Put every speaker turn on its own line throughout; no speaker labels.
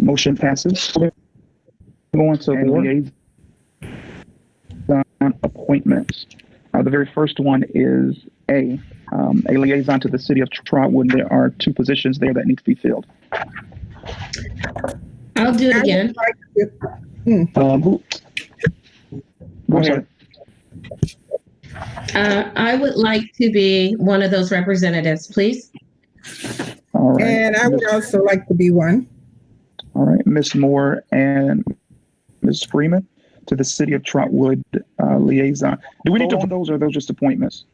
Motion passes.
Going to
And
board.
liaison appointments. Uh, the very first one is A, um, a liaison to the city of Trotwood. There are two positions there that need to be filled.
I'll do it again.
Um, who,
I'm
Okay.
sorry.
Uh, I would like to be one of those representatives, please.
All right.
And I would also like to be one.
All right, Ms. Moore and Ms. Freeman to the City of Trotwood uh, Liaison. Do we need to vote on those or are those just appointments?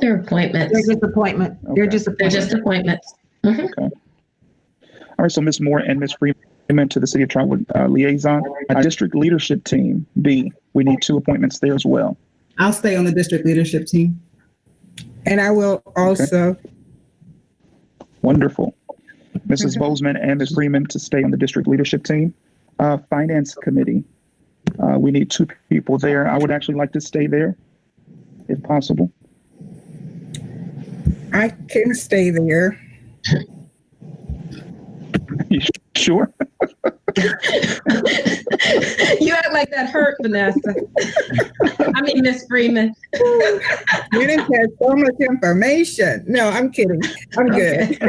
They're appointments.
They're disappointment. They're
Okay.
They're
disappointment.
just appointments.
All right, so Ms. Moore and Ms. Freeman to the City of Trotwood uh, Liaison. Uh, District Leadership Team, B, we need two appointments there as well.
I'll stay on the district leadership team.
And I will also,
Wonderful. Mrs. Bozeman and Ms. Freeman to stay on the District Leadership Team. Uh, Finance Committee, uh, we need two people there. I would actually like to stay there if possible.
I can stay there.
Sure.
you act like that hurt, Vanessa. I mean, Miss Freeman.
You didn't have so much information. No, I'm kidding. I'm good.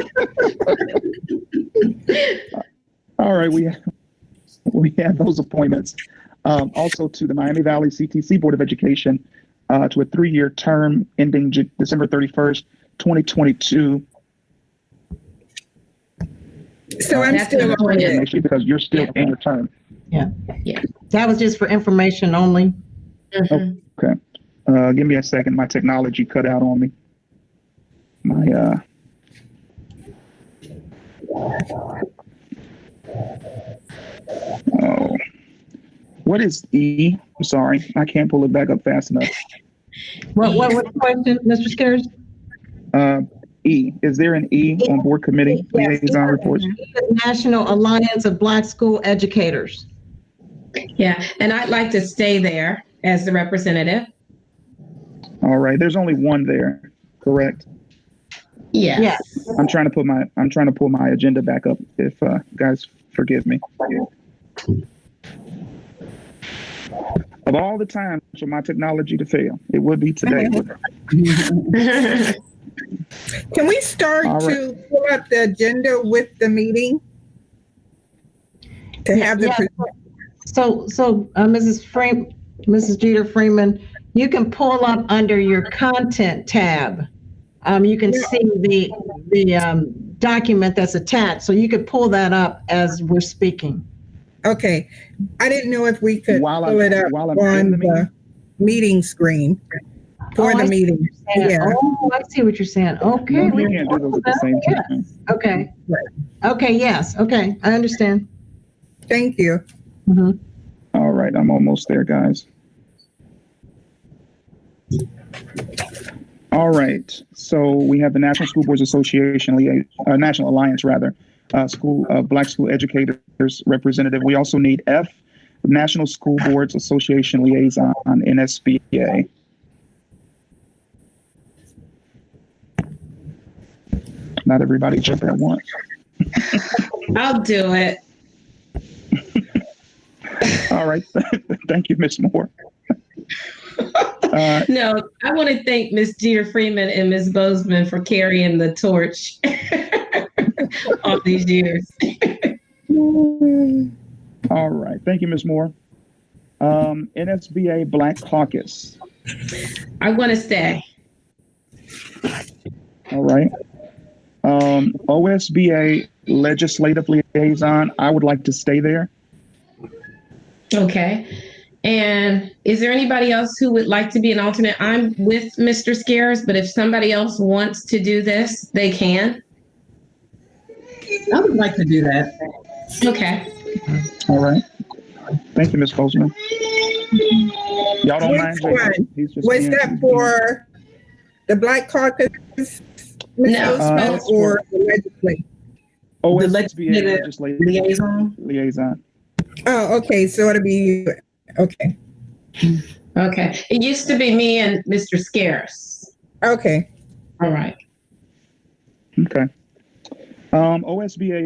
All right, we we have those appointments. Um, also to the Miami Valley CTC Board of Education uh, to a three-year term ending J- December 31st, 2022.
So I'm
That's
still
an
on
appointment.
it.
Actually, because you're still in your term.
That was just for information only.
Mhm.
Uh, give me a second. My technology cut out on me. My uh. Oh. What is E? I'm sorry, I can't pull it back up fast enough.
What, what was the question, Mr. Scares?
Uh, E, is there an E on board committee
Yes.
liaison reports?
National Alliance of Black School Educators.
Yeah, and I'd like to stay there as the representative.
All right, there's only one there, correct?
Yes.
I'm trying to put my, I'm trying to pull my agenda back up if, uh, guys forgive me. Of all the times for my technology to fail, it would be today.
Can we start
All right.
to pull up the agenda with the meeting? To have the,
Yeah.
pre-
So, so uh, Mrs. Freeman, Mrs. Jeter Freeman, you can pull up under your content tab. Um, you can see the, the, um, document that's attached, so you could pull that up as we're speaking.
okay. I didn't know if we could
While I'm-
pull it up
while I'm in
on
the meeting?
the meeting screen for
Oh, I
the
see.
meeting. Yeah.
Oh, I see what you're saying. Okay.
You
we
can't do those at the same time.
Okay. Okay, yes, okay, I understand.
Thank you.
Mhm.
All right, I'm almost there, guys. All right, so we have the National School Boards Association, lia- uh, National Alliance, rather, uh, School, uh, Black School Educators Representative. We also need F, National School Boards Association Liaison, NSBA. Not everybody jumped at once.
I'll do it.
All right, thank you, Ms. Moore. Uh,
No, I want to thank Miss Jeter Freeman and Miss Bozeman for carrying the torch all these years.
All right. Thank you, Ms. Moore. Um, NSBA Black Caucus.
I want to stay.
All right. Um, OSBA Legislative Liaison. I would like to stay there.
Okay. And is there anybody else who would like to be an alternate? I'm with Mr. Scares, but if somebody else wants to do this, they can.
I would like to do that.
Okay.
All right. Thank you, Ms. Bozeman. Y'all don't mind?
Which one?
Jason? He's just
Was
being-
that for the Black Caucus? Ms.
No.
Bozeman,
Uh, it's for-
Or the legislature?
OSBA
legislative
Legislative
Liaison?
Liaison.
Oh, okay, so it'll be, okay,
Okay. It used to be me and Mr. Scares.
okay.
All right.
Okay. Um, OSBA